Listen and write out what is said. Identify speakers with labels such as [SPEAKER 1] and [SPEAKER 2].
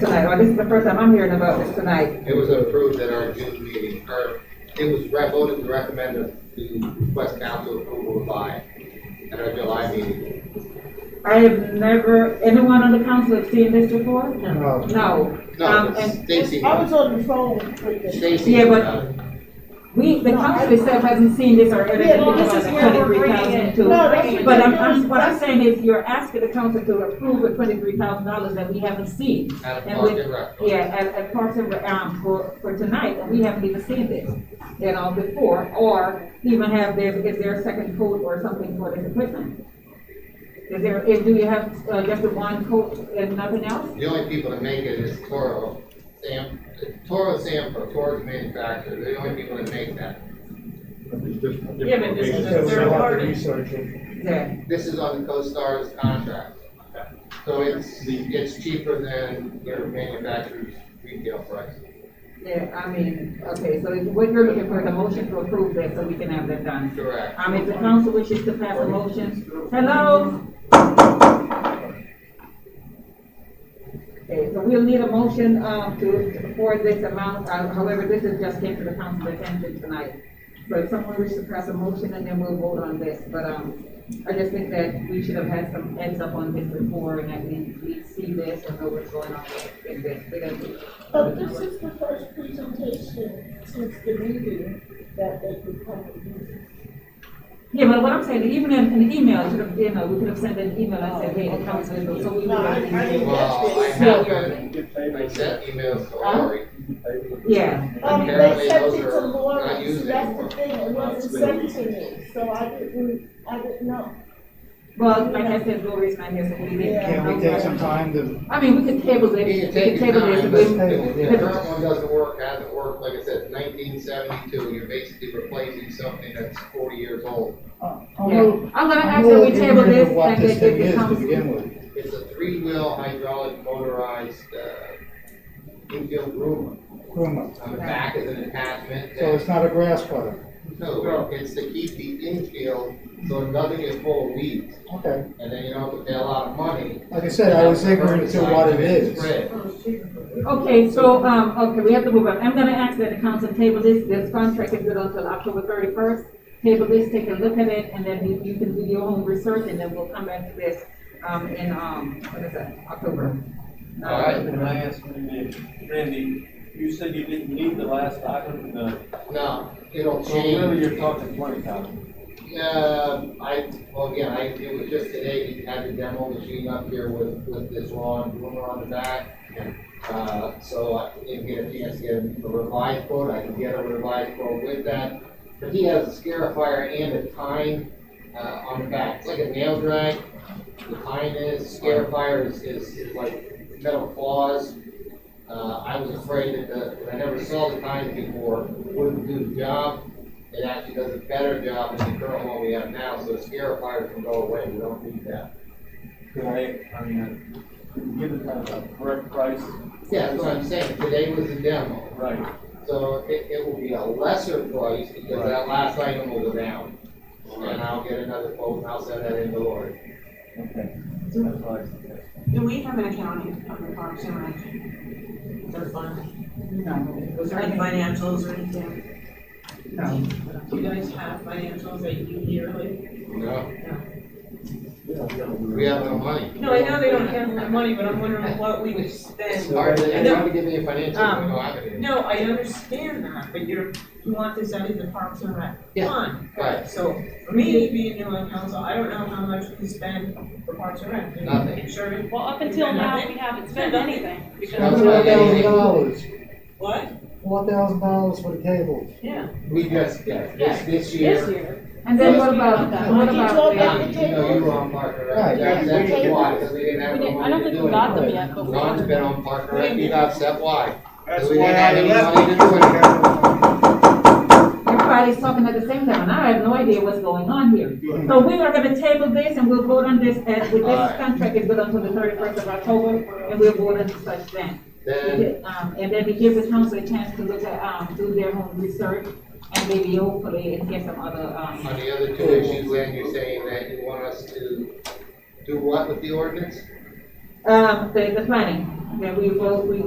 [SPEAKER 1] tonight, or this is the first time I'm hearing about this tonight.
[SPEAKER 2] It was approved at our June meeting, or it was re- voted to recommend to request council approval by, at our July meeting.
[SPEAKER 1] I have never, anyone on the council have seen this before?
[SPEAKER 3] No.
[SPEAKER 1] No. Um,
[SPEAKER 2] No,
[SPEAKER 1] and
[SPEAKER 2] Stacy,
[SPEAKER 4] I was on the phone with the.
[SPEAKER 2] Stacy. uh,
[SPEAKER 1] Yeah, but- we, the council itself hasn't seen this or heard
[SPEAKER 4] Yeah,
[SPEAKER 1] anything
[SPEAKER 4] well,
[SPEAKER 1] about
[SPEAKER 4] this
[SPEAKER 1] the
[SPEAKER 4] is where we're
[SPEAKER 1] twenty-three
[SPEAKER 4] bringing
[SPEAKER 1] thousand
[SPEAKER 4] it.
[SPEAKER 1] too.
[SPEAKER 4] No, that's what
[SPEAKER 1] But I'm,
[SPEAKER 4] they're
[SPEAKER 1] I'm,
[SPEAKER 4] doing.
[SPEAKER 1] what I'm saying is you're asking the council to approve a twenty-three thousand dollars that we haven't seen.
[SPEAKER 2] At a
[SPEAKER 1] And
[SPEAKER 2] park
[SPEAKER 1] with-
[SPEAKER 2] and rec.
[SPEAKER 1] Yeah, at, at Parks and, Rec, um, for, for tonight, and we haven't even seen this, you know, before, or even have their, is there a second coat or something for this equipment? Is there, is, do you have, uh, just the one coat and nothing else?
[SPEAKER 2] The only people that make it is Toro, Sam, Toro Sampo, Toro's manufacturer, they're the only people that make that.
[SPEAKER 4] Yeah, but this is
[SPEAKER 3] So
[SPEAKER 4] a
[SPEAKER 3] we don't
[SPEAKER 4] third
[SPEAKER 3] have to
[SPEAKER 4] party.
[SPEAKER 3] research it.
[SPEAKER 1] Yeah,
[SPEAKER 2] This is on the CoStar's contract. So it's, it's cheaper than their manufacturer's retail price.
[SPEAKER 1] yeah, I mean, okay, so it's- what you're looking for, is a motion to approve that, so we can have that done.
[SPEAKER 2] Correct.
[SPEAKER 1] Um, if the council wishes to pass a motion, hello? Okay, so we'll need a motion, um, to, for this amount, uh, however, this is just came to the council attention tonight. So if someone wishes to pass a motion, and then we'll vote on this, but, um, I just think that we should have had some heads up on this before, and that we, we see this and know what's going on in this, because.
[SPEAKER 4] But this is the first presentation since the meeting that they could come and do.
[SPEAKER 1] Yeah, but what I'm saying, even in an email, should have, you know, we could have sent an email and said, hey, the council, is- so we
[SPEAKER 4] No,
[SPEAKER 1] would
[SPEAKER 4] I, I
[SPEAKER 1] have.
[SPEAKER 4] didn't catch
[SPEAKER 2] Well, I
[SPEAKER 4] this.
[SPEAKER 1] No.
[SPEAKER 2] haven't, I sent emails to
[SPEAKER 1] Huh?
[SPEAKER 2] Lori.
[SPEAKER 1] Yeah,
[SPEAKER 4] Um,
[SPEAKER 2] Apparently
[SPEAKER 4] they sent
[SPEAKER 2] those
[SPEAKER 4] it to
[SPEAKER 2] are not
[SPEAKER 4] Lawrence,
[SPEAKER 2] used
[SPEAKER 4] that's
[SPEAKER 2] anymore.
[SPEAKER 4] the thing, it wasn't sent to me, so I didn't, I didn't know.
[SPEAKER 1] well, like I said, Lori's not here, so we didn't.
[SPEAKER 3] Can we take some time to,
[SPEAKER 1] I mean, we could table this,
[SPEAKER 2] You
[SPEAKER 1] we
[SPEAKER 2] can
[SPEAKER 1] could
[SPEAKER 2] take your
[SPEAKER 1] table this,
[SPEAKER 2] time,
[SPEAKER 1] and
[SPEAKER 2] but
[SPEAKER 3] we-
[SPEAKER 2] the
[SPEAKER 3] Yeah.
[SPEAKER 2] the current one doesn't work, hasn't worked, like I said, nineteen seventy-two, you're basically replacing something that's forty years old.
[SPEAKER 3] I'll move,
[SPEAKER 1] yeah. I'm gonna
[SPEAKER 3] I'll
[SPEAKER 1] ask that
[SPEAKER 3] move
[SPEAKER 1] we table
[SPEAKER 3] ignorant
[SPEAKER 1] this,
[SPEAKER 3] of what
[SPEAKER 1] and
[SPEAKER 3] this
[SPEAKER 1] then it
[SPEAKER 3] thing is to
[SPEAKER 1] becomes.
[SPEAKER 3] begin with.
[SPEAKER 2] It's a three-wheel hydraulic motorized, uh, infield groomer.
[SPEAKER 3] Groomer.
[SPEAKER 2] On the back is an attachment
[SPEAKER 3] So it's
[SPEAKER 2] that,
[SPEAKER 3] not a grass cutter.
[SPEAKER 2] no, it's to keep the infield, so nothing is full of weeds.
[SPEAKER 3] Okay.
[SPEAKER 2] And then you don't have to pay a lot of money.
[SPEAKER 3] Like I said, I was ignorant to what it is.
[SPEAKER 2] Spread.
[SPEAKER 1] Okay, so, um, okay, we have to move on, I'm gonna ask that the council table this, this contract is good until October thirty-first. Table this, take a look at it, and then you, you can do your own research, and then we'll come back to this, um, in, um, what is that, October? No,
[SPEAKER 2] All right.
[SPEAKER 5] Can I ask Randy, Randy, you said you didn't need the last item, the,
[SPEAKER 2] No, it'll
[SPEAKER 5] so really
[SPEAKER 2] change.
[SPEAKER 5] you're talking twenty thousand.
[SPEAKER 2] Uh, I, well, again, I, it was just today, we had the demo machine up here with, with this lawn groomer on the back. Uh, so I didn't get a chance to get a revised quote, I can get a revised quote with that. But he has a scarifier and a tine, uh, on the back, it's like a nail drag. The tine is, scarifier is, is like metal claws. Uh, I was afraid that the, I never saw the tine before, wouldn't do the job. It actually does a better job than the current one we have now, so the scarifier can go away, we don't need that.
[SPEAKER 5] Could I, I mean, could you give it kind of a correct price?
[SPEAKER 2] Yeah, that's what I'm saying, today was the demo,
[SPEAKER 5] Right.
[SPEAKER 2] so it, it will be a lesser price because that last item will go down. And I'll get another quote and I'll send that in to Lori.
[SPEAKER 5] Okay. That's what I suggest.
[SPEAKER 6] Do we have an accounting of the parks and rec? Their fund,
[SPEAKER 1] No,
[SPEAKER 6] was there any financials or anything?
[SPEAKER 1] no.
[SPEAKER 6] Do you guys have financials that you do yearly?
[SPEAKER 2] No, we have no money.
[SPEAKER 6] No, I know they don't have the money, but I'm wondering what we would spend.
[SPEAKER 2] All right, then you have to give me a financial, I
[SPEAKER 6] Um,
[SPEAKER 2] don't have it.
[SPEAKER 6] No, I understand that, but you're, you want this out of the parks and rec
[SPEAKER 2] Yeah.
[SPEAKER 6] fund.
[SPEAKER 2] Right.
[SPEAKER 6] So for me, being new on council, I don't know how much we spend for parks and rec.
[SPEAKER 2] Nothing.
[SPEAKER 6] Insurance,
[SPEAKER 7] Well, up until now, we haven't spent anything.
[SPEAKER 2] No,
[SPEAKER 7] because
[SPEAKER 2] it's not
[SPEAKER 3] Four thousand
[SPEAKER 2] anything.
[SPEAKER 3] dollars,
[SPEAKER 6] what?
[SPEAKER 3] four thousand dollars for the cable.
[SPEAKER 6] Yeah.
[SPEAKER 2] We just, yeah, this, this
[SPEAKER 7] This
[SPEAKER 2] year.
[SPEAKER 7] year,
[SPEAKER 1] And then what about, what
[SPEAKER 4] Did you talk
[SPEAKER 1] about the,
[SPEAKER 4] about
[SPEAKER 2] um,
[SPEAKER 4] the
[SPEAKER 2] You know, you
[SPEAKER 4] table?
[SPEAKER 2] were on Parker,
[SPEAKER 3] Right.
[SPEAKER 2] right? That's, that's
[SPEAKER 4] Yeah.
[SPEAKER 2] why, because we didn't have
[SPEAKER 7] We
[SPEAKER 2] the
[SPEAKER 7] didn't- I
[SPEAKER 2] money
[SPEAKER 7] don't
[SPEAKER 2] to
[SPEAKER 7] think
[SPEAKER 2] do
[SPEAKER 7] we got them
[SPEAKER 2] anything.
[SPEAKER 7] yet, but we-
[SPEAKER 2] Ron's been on Parker, right? You're upset, why?
[SPEAKER 3] That's
[SPEAKER 2] We
[SPEAKER 3] why
[SPEAKER 2] didn't have
[SPEAKER 3] I
[SPEAKER 2] any
[SPEAKER 3] left
[SPEAKER 2] money to do anything.
[SPEAKER 1] everybody's talking at the same time, and I have no idea what's going on here. So we are gonna table this, and we'll vote on this, and with this
[SPEAKER 2] Alright.
[SPEAKER 1] contract is good until the thirty-first of October, and we'll vote on such then.
[SPEAKER 2] Then,
[SPEAKER 1] Um, and then we give the council a chance to look at, um, do their own research, and maybe hopefully and get some other, um,
[SPEAKER 2] on the other two issues, then you're saying that you want us to do what with the ordinance?
[SPEAKER 1] um, the, the planning, that we vote, we